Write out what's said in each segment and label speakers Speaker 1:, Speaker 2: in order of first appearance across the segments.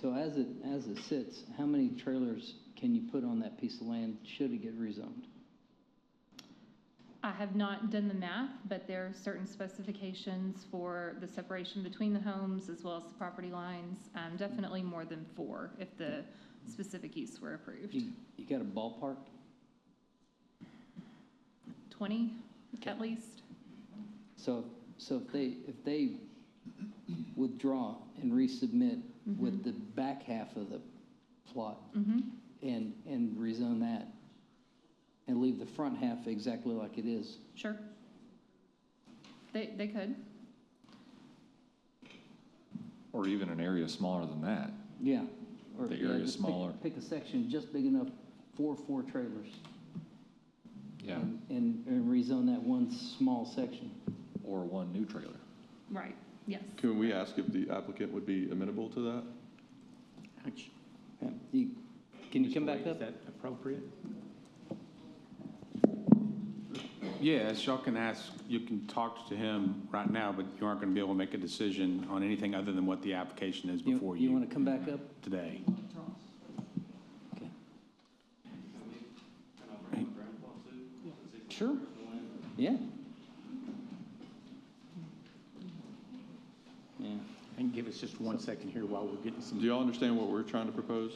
Speaker 1: So as it, as it sits, how many trailers can you put on that piece of land should it get rezoned?
Speaker 2: I have not done the math, but there are certain specifications for the separation between the homes as well as the property lines. Um, Definitely more than four if the specific use were approved.
Speaker 1: You, you got a ballpark?
Speaker 2: 20
Speaker 1: Okay.
Speaker 2: at least.
Speaker 1: So, so if they, if they withdraw and resubmit with the back half of the plot
Speaker 2: Mhm.
Speaker 1: and, and rezone that and leave the front half exactly like it is,
Speaker 2: Sure. They, they could.
Speaker 3: Or even an area smaller than that.
Speaker 1: yeah. or-
Speaker 3: The
Speaker 1: yeah,
Speaker 3: area's
Speaker 1: just pick-
Speaker 3: smaller.
Speaker 1: Pick a section just big enough for four trailers.
Speaker 3: Yeah.
Speaker 1: and- And, and rezone that one small section.
Speaker 3: Or one new trailer.
Speaker 2: Right, yes.
Speaker 4: Can we ask if the applicant would be amenable to that?
Speaker 1: Yeah, you- Can you come back
Speaker 5: Is
Speaker 1: up?
Speaker 5: that appropriate?
Speaker 6: Yes, y'all can ask, you can talk to him right now, but you aren't going to be able to make a decision on anything other than what the application is before
Speaker 1: You
Speaker 6: you
Speaker 1: want to come back up?
Speaker 6: today.
Speaker 1: Okay. Sure, yeah. Yeah,
Speaker 5: And give us just one second here while we're getting some
Speaker 4: Do y'all understand what we're trying to propose?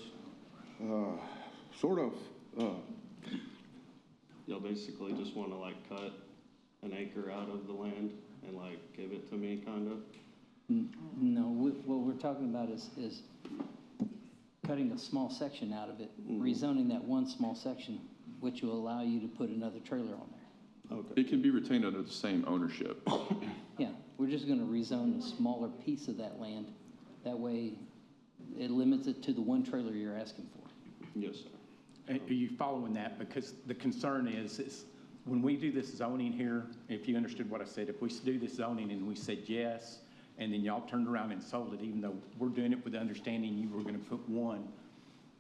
Speaker 7: Sort of. Uh,
Speaker 8: Y'all basically just wanna like cut an acre out of the land and like give it to me kinda?
Speaker 1: N- no, we- what we're talking about is, is cutting a small section out of it, rezoning that one small section, which will allow you to put another trailer on there.
Speaker 4: It can be retained under the same ownership.
Speaker 1: Yeah, we're just gonna rezone a smaller piece of that land, that way it limits it to the one trailer you're asking for.
Speaker 8: Yes, sir.
Speaker 5: Are are you following that? Because the concern is, is when we do this zoning here, if you understood what I said, if we do this zoning and we said yes, and then y'all turned around and sold it, even though we're doing it with the understanding you were gonna put one,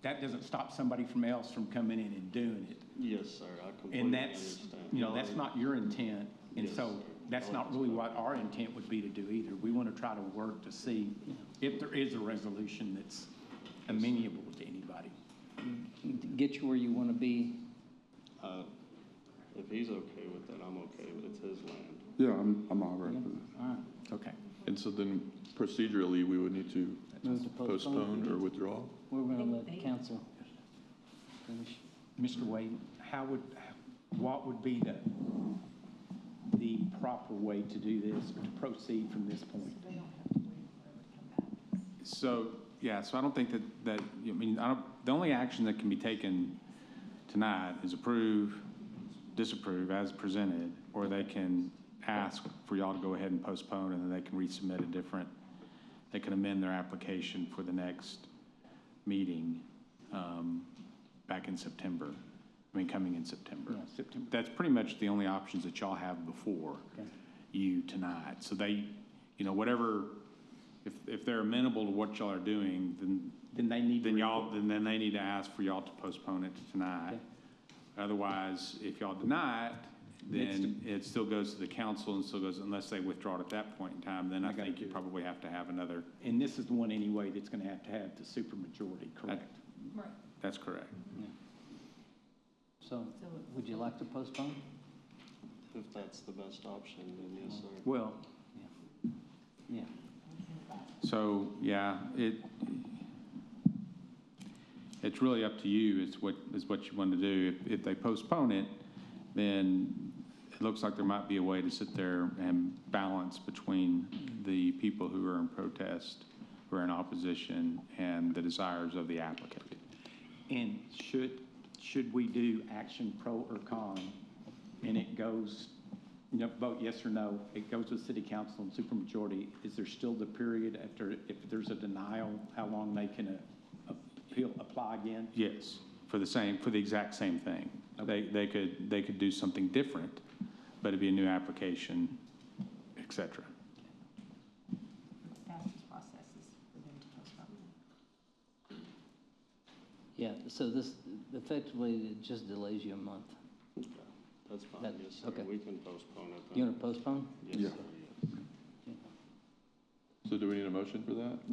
Speaker 5: that doesn't stop somebody from else from coming in and doing it.
Speaker 8: Yes, sir, I completely
Speaker 5: And that's,
Speaker 8: understand.
Speaker 5: you know, that's not your intent, and
Speaker 8: Yes,
Speaker 5: so
Speaker 8: sir.
Speaker 5: that's not really what our intent would be to do either. We wanna try to work to see if there is a resolution that's amenable to anybody.
Speaker 1: Get you where you wanna be,
Speaker 8: Uh, If he's okay with it, I'm okay, but it's his land.
Speaker 7: Yeah, I'm, I'm all right with it.
Speaker 5: Okay.
Speaker 4: And so then procedurally, we would need to
Speaker 1: move to postpone.
Speaker 4: postpone or withdraw?
Speaker 1: We're gonna let council finish.
Speaker 5: Mr. Wade, how would, what would be the, the proper way to do this, or to proceed from this point?
Speaker 6: So, yeah, so I don't think that, that, I mean, I don't, the only action that can be taken tonight is approve, disapprove as presented, or they can ask for y'all to go ahead and postpone, and then they can resubmit a different, they can amend their application for the next meeting, um, back in September, I mean, coming in September.
Speaker 5: Yeah, September.
Speaker 6: That's pretty much the only options that y'all have before
Speaker 5: Okay.
Speaker 6: you tonight. So they, you know, whatever, if, if they're amenable to what y'all are doing, then,
Speaker 5: Then they need
Speaker 6: then
Speaker 5: to,
Speaker 6: y'all, then, then they need to ask for y'all to postpone it to tonight. Otherwise, if y'all deny it, then it still goes to the council and still goes, unless they withdraw it at that point in time, then
Speaker 5: I
Speaker 6: I
Speaker 5: gotta
Speaker 6: think you
Speaker 5: do it.
Speaker 6: probably have to have another.
Speaker 5: and this is the one anyway that's gonna have to have the supermajority, correct?
Speaker 2: Right.
Speaker 6: That's correct.
Speaker 1: So, would you like to postpone?
Speaker 8: If that's the best option, then yes, sir.
Speaker 5: Well,
Speaker 1: Yeah.
Speaker 6: So, yeah, it, it's really up to you, is what, is what you want to do. If, if they postpone it, then it looks like there might be a way to sit there and balance between the people who are in protest, who are in opposition, and the desires of the applicant.
Speaker 5: and should, should we do action pro or con? And it goes, you know, vote yes or no, it goes to the city council and supermajority. Is there still the period after, if there's a denial, how long they can uh, appeal, apply again?
Speaker 6: Yes, for the same, for the exact same thing. They, they could, they could do something different, but it'd be a new application, et cetera.
Speaker 9: fastest process is for them to postpone.
Speaker 1: Yeah, so this, effectively, it just delays you a month.
Speaker 8: Okay, That's fine,
Speaker 1: That-
Speaker 8: yes,
Speaker 1: okay.
Speaker 8: sir. We can postpone it then.
Speaker 1: You wanna postpone?
Speaker 8: Yes,
Speaker 7: Yeah.
Speaker 8: sir, yes.
Speaker 4: So do we need a motion for that?